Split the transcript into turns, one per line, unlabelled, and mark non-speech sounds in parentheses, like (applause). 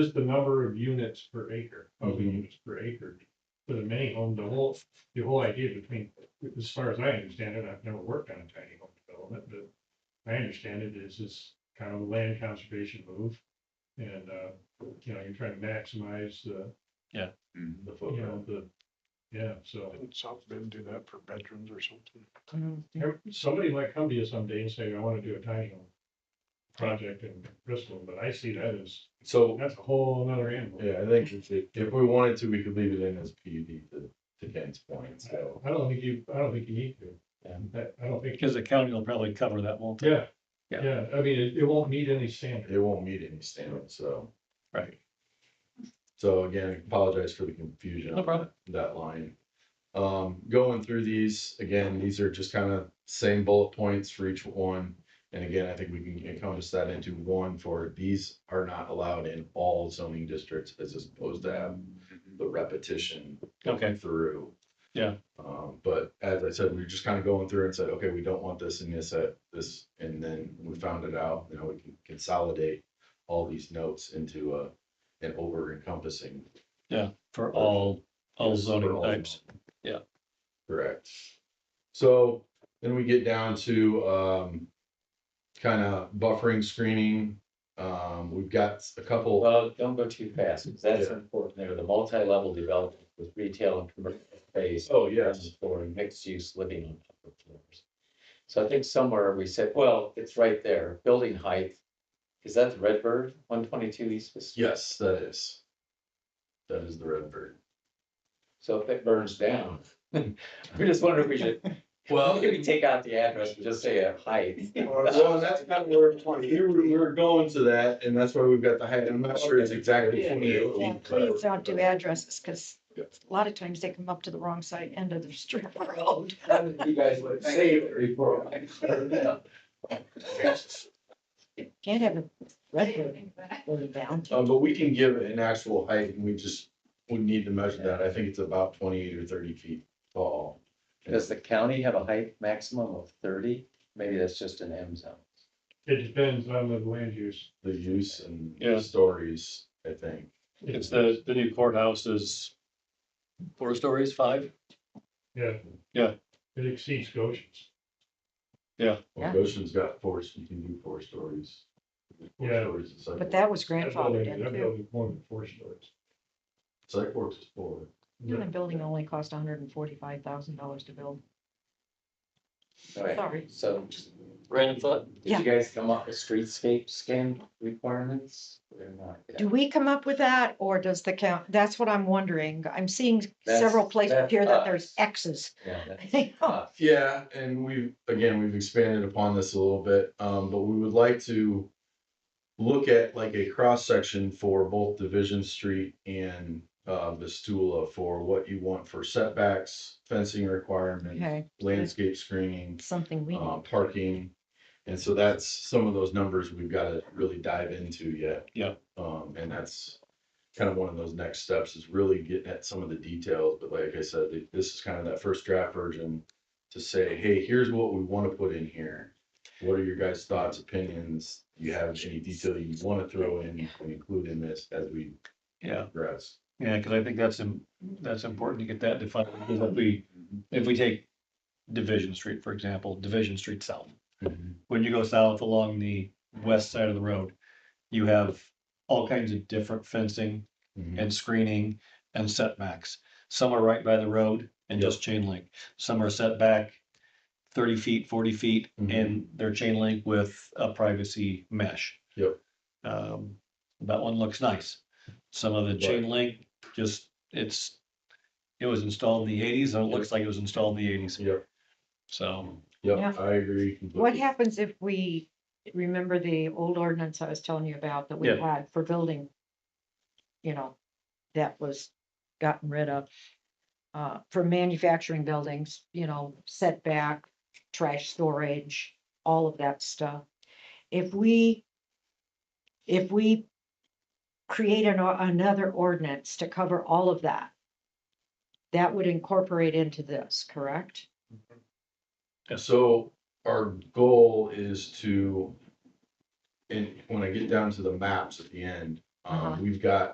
just the number of units per acre, housing
Mhm.
units per acre. For the mini home, the whole, the whole idea between, as far as I understand it, I've never worked on a tiny home development, but I understand it is this kind of land conservation move. And, uh, you know, you're trying to maximize the,
Mm-hmm.
The
you know, the, yeah, so.
Didn't South Bend do that for veterans or something?
Somebody might come to you someday and say, I wanna do a tiny home project in Bristol, but I see that as,
So,
that's a whole other animal.
yeah, I think if, it- if we wanted to, we could leave it in as PUD to, to Ken's point, so.
I don't think you, I don't think you need to.
Yeah.
That- I don't think,
Because the county will probably cover that, won't they?
yeah,
Yeah.
yeah, I mean, it, it won't meet any standard.
It won't meet any standard, so.
Right.
So again, apologize for the confusion.
No
on
problem.
That line. Um, going through these, again, these are just kind of same bullet points for each one. And again, I think we can encompass that into one for these are not allowed in all zoning districts as opposed to have the repetition
Mm-hmm. Okay,
going through.
Yeah.
Um, but as I said, we were just kind of going through and said, okay, we don't want this and this, uh, this, and then we found it out, you know, we can consolidate all these notes into a, an over encompassing.
for all, all zoning
all
types.
zoning.
Yeah.
Correct. So then we get down to, um, kind of buffering screening. Um, we've got a couple.
Well, don't go too fast, because that's
Yeah.
important there, the multi-level development with retail and commercial space.
Oh,
ground Floor and mixed use living on upper floors. So I think somewhere we said, well, it's right there, building height, is that the Redbird, one twenty-two East? Fifth Street?
Yes, that is. That is the red bird.
So if it burns down, (laughs) we just wonder if we should, maybe take out the address and just say uh,
(laughs)
height.
Well, and that's kind of where we were, we were going to that, and that's why we've got the height, I'm not sure it's exactly
Yeah.
twenty-eight.
Yeah,
feet,
please
but-
don't do addresses, because
Yeah.
a lot of times they come up to the wrong side end of the strip (laughs) road.
You guys would save it before.
Can't have a red building down.
Um,
Uh, but we can give an actual height, and we just, we need to measure that, I think it's about twenty-eight or thirty feet tall.
Does the county have a height maximum of thirty? Maybe that's just an M zone.
It depends on the land use.
The use and
Yeah.
stories, I think.
It's the, the new courthouse is four stories, five?
Yeah.
Yeah.
It exceeds Goshen's.
Well,
Yeah.
Goshen's got four, you can do four stories. Four
Yeah.
stories is like-
But that was
That building-
grandfathered in
That
too.
building more than four stories.
Psych works is four.
The building only cost hundred and forty-five thousand dollars to build.
All right.
Sorry.
So
Random thought?
did you guys come up with streetscape scan requirements or not?
Do we come up with that or does the count? That's what I'm wondering. I'm seeing
That's-
several places
that's
here that
us.
there's X's. (laughs)
Yeah, that-
Oh,
Yeah, and we've, again, we've expanded upon this a little bit, um, but we would like to look at like a cross section for both Division Street and, uh, Vestula for what you want for setbacks, fencing requirements,
Okay,
landscape screening,
something we
uh,
need.
parking. And so that's some of those numbers we've got to really dive into yet.
Yeah.
Um, and that's kind of one of those next steps is really getting at some of the details. But like I said, th- this is kind of that first draft version to say, hey, here's what we want to put in here. What are your guys' thoughts, opinions? Do you have any detail you want to throw in and include in this as we
Yeah,
progress?
yeah, because I think that's, im- that's important to get that defined. Because if we, if we take Division Street, for example, Division Street South. when you go south along the west side of the road, you have all kinds of different fencing
Mhm.
and screening and setbacks. Some are right by the road and just chain link. Some are set back thirty feet, forty feet,
Mhm.
and they're chain link with a privacy mesh.
Yep.
Um, that one looks nice. Some of the chain link, just, it's, it was installed in the eighties, and it looks like it was installed in the eighties,
Yep,
so.
yep,
Yeah.
I agree.
What
completely.
happens if we remember the old ordinance I was telling you about that we
Yeah.
had for building? You know, that was gotten rid of. Uh, for manufacturing buildings, you know, setback, trash storage, all of that stuff. If we, if we create an, or- another ordinance to cover all of that, that would incorporate into this, correct?
So our goal is to, and when I get down to the maps at the end,
Uh-huh.
Um, we've got